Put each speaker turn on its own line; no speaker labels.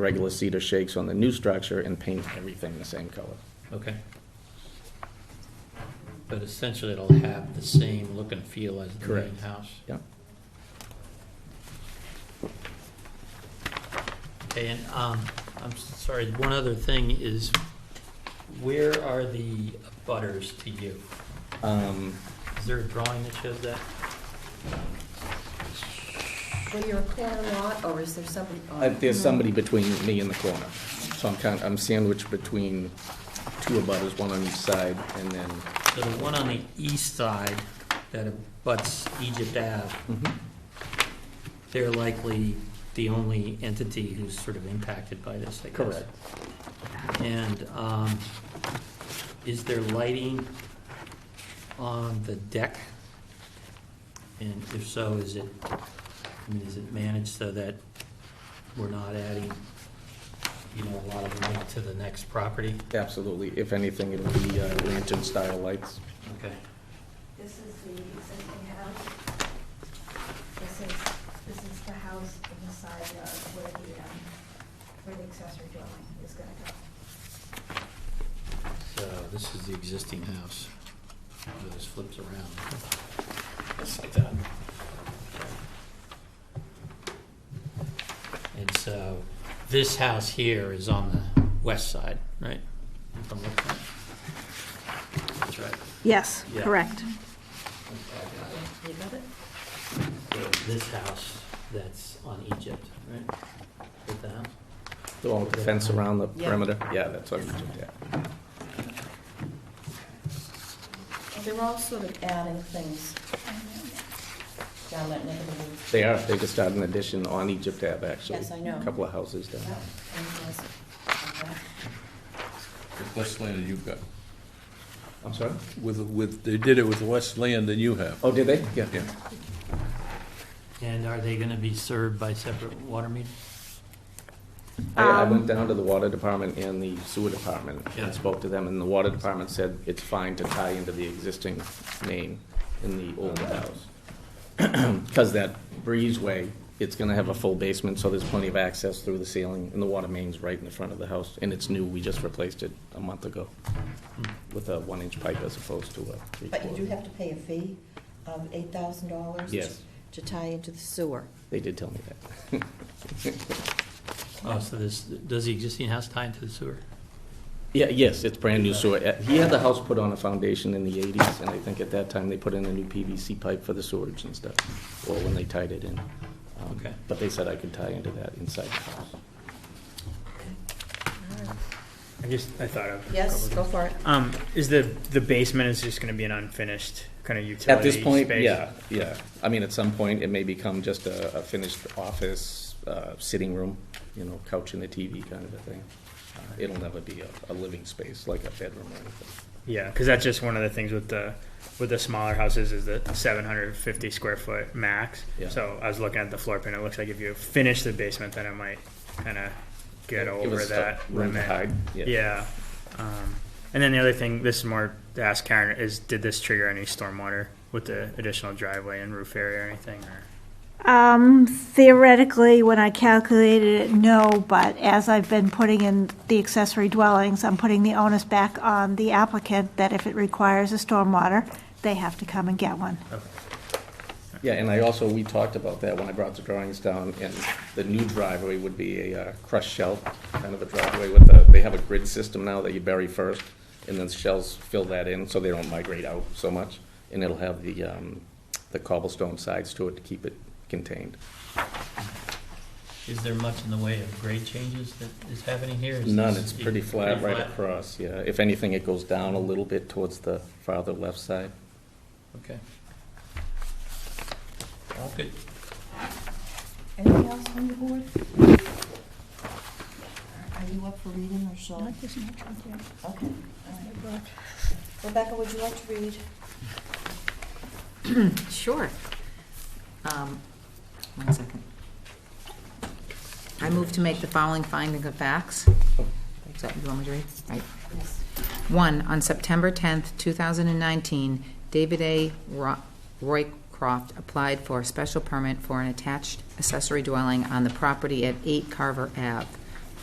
regular cedar shakes on the new structure and paint everything the same color.
Okay. But essentially, it'll have the same look and feel as the main
Correct.
house?
Yeah.
And, um, I'm s- sorry, one other thing is, where are the butters to you?
Um,
Is there a drawing that shows that?
Well, you're a corner lot, or is there somebody
uh,
on?
There's somebody between me and the corner. So I'm kind, I'm sandwiched between two abutters, one on each side, and then,
So the one on the east side that abuts Egypt Ave, they're likely the only entity who's sort of impacted by this, I guess.
Correct.
And um, is there lighting on the deck? And if so, is it, I mean, is it managed so that we're not adding, you know, a lot of light to the next property?
absolutely, if anything, it'll be uh, lantern-style lights.
Okay.
This is the existing house. This is, this is the house in the side yard where the, um, where the accessory dwelling is gonna go.
So this is the existing house. It just flips around. It's like that. And so this house here is on the west side, right? If I'm looking at it. That's right.
Yes,
Yeah.
correct.
You got it?
So This house that's on Egypt, right? With the house?
The one with the fence around the
Yeah.
perimeter, yeah, that's what I'm, yeah.
They're all sort of adding things down that neck of the woods.
They are, they just started an addition on Egypt Ave, actually.
Yes, I know.
A Couple of houses down.
Yeah, and yes, okay.
Less land than you've got.
I'm sorry?
With, with, they did it with less land than you have.
Oh, did they? Yeah.
Yeah.
And are they gonna be served by separate water meters?
I, I
Um,
went down to the water department and the sewer department
Yeah.
and spoke to them, and the water department said it's fine to tie into the existing main in the old house. Because that breezeway, it's gonna have a full basement, so there's plenty of access through the ceiling, and the water main's right in the front of the house, and it's new, we just replaced it a month ago
Hmm.
with a one-inch pipe as opposed to a
But you do
three-quarter.
have to pay a fee of eight thousand dollars?
Yes.
To tie into the sewer.
They did tell me that.
Oh, so this, does the existing house tie into the sewer?
Yeah, yes, it's brand new sewer. Uh, He had the house put on a foundation in the eighties, and I think at that time they put in a new PVC pipe for the sewage and stuff, or when they tied it in. Um,
Okay.
But they said I could tie into that inside the house.
I just I thought of
Yes, go for it.
Um, is the the basement is just going to be an unfinished kind of utility
At this point,
space?
yeah, yeah. I mean, at some point, it may become just a, a finished office, uh, sitting room, you know, couch and a TV kind of a thing. Uh, It'll never be a, a living space, like a bedroom or anything.
yeah, because that's just one of the things with the with the smaller houses is the 750 square foot max.
Yeah.
So I was looking at the floor plan. It looks like if you finish the basement, then it might kind of get
Give
over
us
that
room to
limit.
hide,
Yeah. Um, and then the other thing, this is more to ask Karen, is did this trigger any stormwater with the additional driveway and roof area or anything? Or?
Um, theoretically, when I calculated it, no, but as I've been putting in the accessory dwellings, I'm putting the onus back on the applicant that if it requires a stormwater, they have to come and get one.
Yeah, and I also, we talked about that when I brought the drawings down, and the new driveway would be a uh, crushed shell, kind of a driveway with a, they have a grid system now that you bury first, and then shells fill that in, so they don't migrate out so much, and it'll have the, um, the cobblestone sides to it to keep it contained.
Is there much in the way of grade changes that is happening here? Is
None,
this-
it's pretty flat right
flat?
across, yeah. If anything, it goes down a little bit towards the farther left side.
Okay. All good.
Anything else from the board? Are you up for reading or shall? Not this much, okay. Okay, all right. Rebecca, would you like to read?
Sure. Um, One second. I move to make the following finding of facts. Is that- You want me to read? Right.
Yes.
One, on September 10th, 2019, David A. Ro- Roycroft applied for a special permit for an attached accessory dwelling on the property at 8 Carver Ave.